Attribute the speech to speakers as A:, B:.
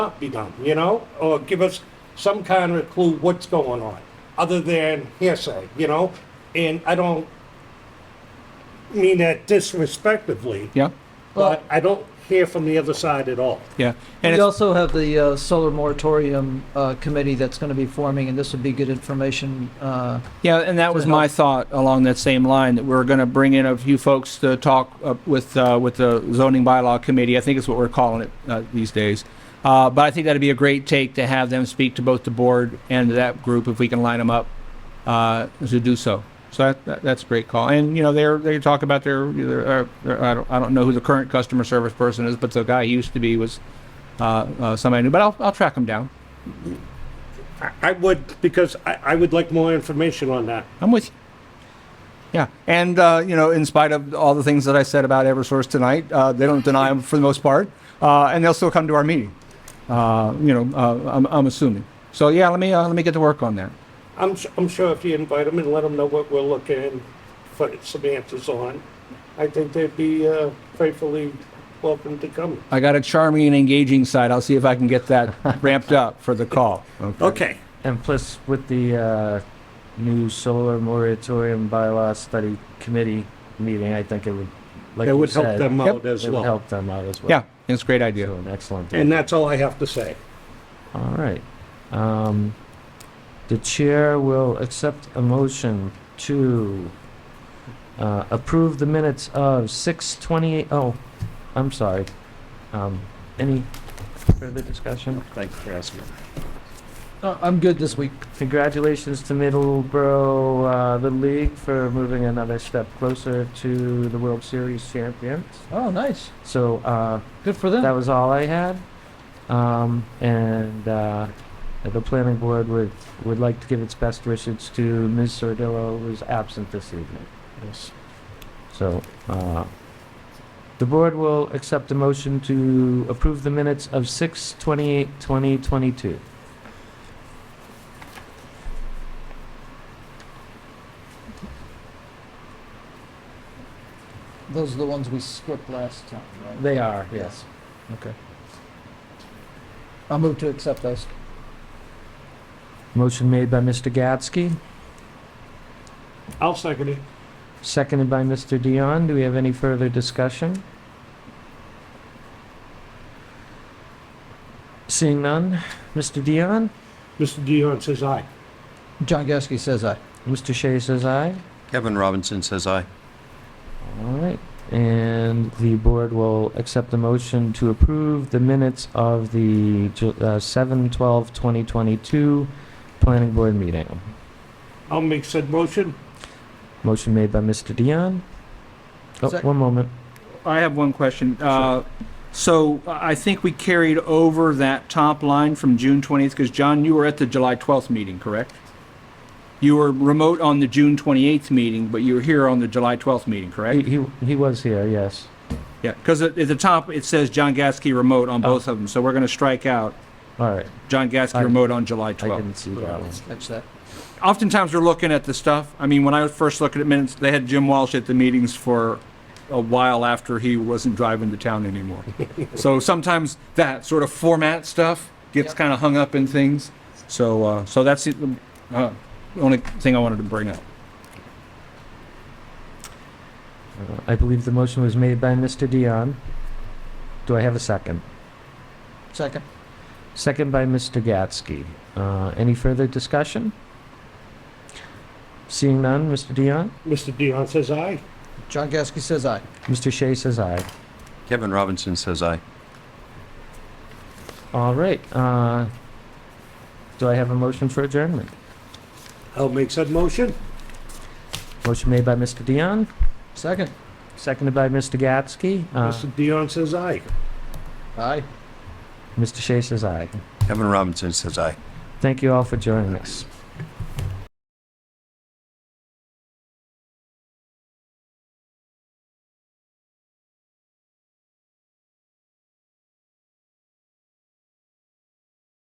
A: not be done, you know? Or give us some kind of clue what's going on, other than hearsay, you know? And I don't mean that disrespectfully,
B: Yeah,
A: but I don't hear from the other side at all.
B: yeah. And
C: We
B: it's,
C: also have the uh, solar moratorium uh, committee that's going to be forming, and this would be good information. uh,
B: yeah, and that was my thought along that same line, that we're gonna bring in a few folks to talk uh, with, uh, with the zoning bylaw committee. I think is what we're calling it, uh, these days. Uh, but I think that'd be a great take to have them speak to both the board and that group if we can line them up, uh, to do so. So that, that, that's a great call. And, you know, they're, they talk about their, their, uh, their- I don't, I don't know who the current customer service person is, but the guy he used to be was, uh, uh, somebody new, but I'll, I'll track him down.
A: I- I would, because I, I would like more information on that.
B: I'm with you. Yeah, and uh, you know, in spite of all the things that I said about EverSource tonight, uh, they don't deny them for the most part, uh, and they'll still come to our meeting. Uh, you know, uh, I'm, I'm assuming. So yeah, let me uh, let me get to work on that.
A: I'm, su- I'm sure if you invite them and let them know what we're looking for some answers on, I think they'd be uh, faithfully welcome to come.
B: I got a charming and engaging side. I'll see if I can get that ramped up for the call.
A: Okay.
D: And plus, with the uh, new solar moratorium bylaw study committee meeting, I think it would, like
A: That
D: you
A: would help
D: said,
A: them
B: Yep.
A: out as
D: It would
A: well.
D: help them out as well.
B: Yeah, it's a great idea.
D: So an excellent.
A: And that's all I have to say.
D: All right. Um, the chair will accept a motion to uh, approve the minutes of 6:28. Oh, I'm sorry. Um, any further discussion?
A: Thanks for asking.
C: uh, I'm good this week.
D: Congratulations to Middleborough uh, the league for moving another step closer to the World Series champions.
C: Oh, nice.
D: So uh,
C: Good for them.
D: that was all I had. Um, and uh, the planning board would, would like to give its best wishes to Ms. Sordillo, who's absent this evening. Yes. So, uh, the board will accept a motion to approve the minutes of 6 28 2022.
C: Those are the ones we skipped last time, right?
D: They are, yes.
C: I'll move to accept those.
D: Motion made by Mr. Gatsky,
A: I'll second it.
D: seconded by Mr. Dion. Do we have any further discussion? Seeing none, Mr. Dion?
A: Mr. Dion says aye.
C: John Gasky says aye.
D: Mr. Shea says aye.
E: Kevin Robinson says aye.
D: All right. And the board will accept the motion to approve the minutes of the Ju- uh, 7/12/2022 Planning Board meeting.
A: I'll make said motion.
D: Motion made by Mr. Dion. Oh,
C: Sec-
D: one moment.
B: I have one question. Uh, so I think we carried over that top line from June 20th because John, you were at the July 12th meeting, correct? You were remote on the June 28th meeting, but you were here on the July 12th meeting,
D: He,
B: correct?
D: he, he was here, yes. Mm-hmm.
B: Yeah, because at, at the top it says John Gasky remote on both of them, so we're going to strike out
D: All right.
B: John Gasky
D: Oh. I-
B: remote on July
D: I
B: 12th.
D: didn't see that one.
C: Catch that.
B: Oftentimes we're looking at the stuff. I mean, when I was first looking at minutes, they had Jim Walsh at the meetings for a while after he wasn't driving to town anymore. so sometimes that sort of format stuff gets
C: Yep.
B: kind of hung up in things. So, uh, so that's the uh, only thing I wanted to bring up.
D: Uh, I believe the motion was made by Mr. Dion. Do I have a second?
C: Second.
D: Second by Mr. Gatsky. Uh, any further discussion? Seeing none, Mr. Dion?
A: Mr. Dion says aye.
C: John Gasky says aye.
D: Mr. Shea says aye.
E: Kevin Robinson says aye.
D: All right. Uh, do I have a motion for adjournment?
A: I'll make said motion.
D: Motion made by Mr. Dion,
C: Second.
D: seconded by Mr. Gatsky. Uh,
A: Mr. Dion says aye.
C: Aye.
D: Mr. Shea says aye.
E: Kevin Robinson says aye.
D: Thank you all for joining us.